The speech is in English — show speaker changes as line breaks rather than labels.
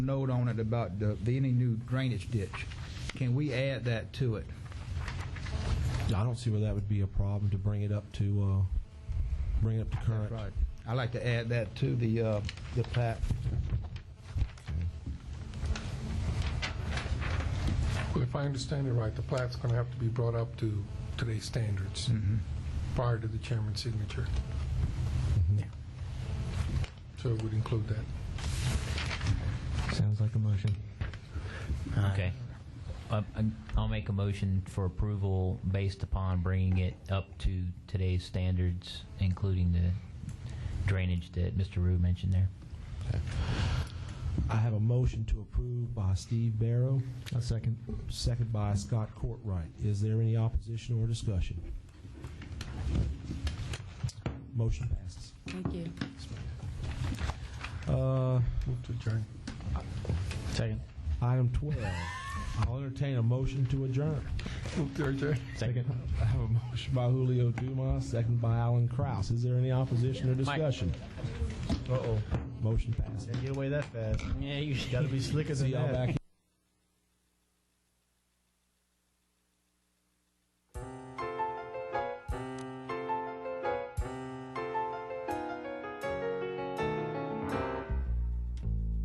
note on it about the, the- any new drainage ditch. Can we add that to it?
I don't see where that would be a problem to bring it up to, uh, bring it up to current.
Right. I'd like to add that to the, uh, the plat.
Well, If I understand it right, the plat's going to have to be brought up to today's standards prior to the chairman's signature. Mm-hmm. So it would include that.
Sounds like a motion.
Okay. Uh, I'll make a motion for approval based upon bringing it up to today's standards, including the drainage that Mr. Rue mentioned there.
I have a motion to approve by Steve Barrow,
A second.
second by Scott Courtwright. Is there any opposition or discussion? Motion passes.
Thank you.
Uh,
Move to adjourn.
Second.
item 12, I'll entertain a motion to adjourn.
Move to adjourn.
Second.
I have a motion by Julio Dumas, second by Alan Kraus. Is there any opposition or discussion?
Uh-oh.
Motion passes.
Get away that fast.
Yeah, you should.
Gotta be slicker than
See y'all
that.
back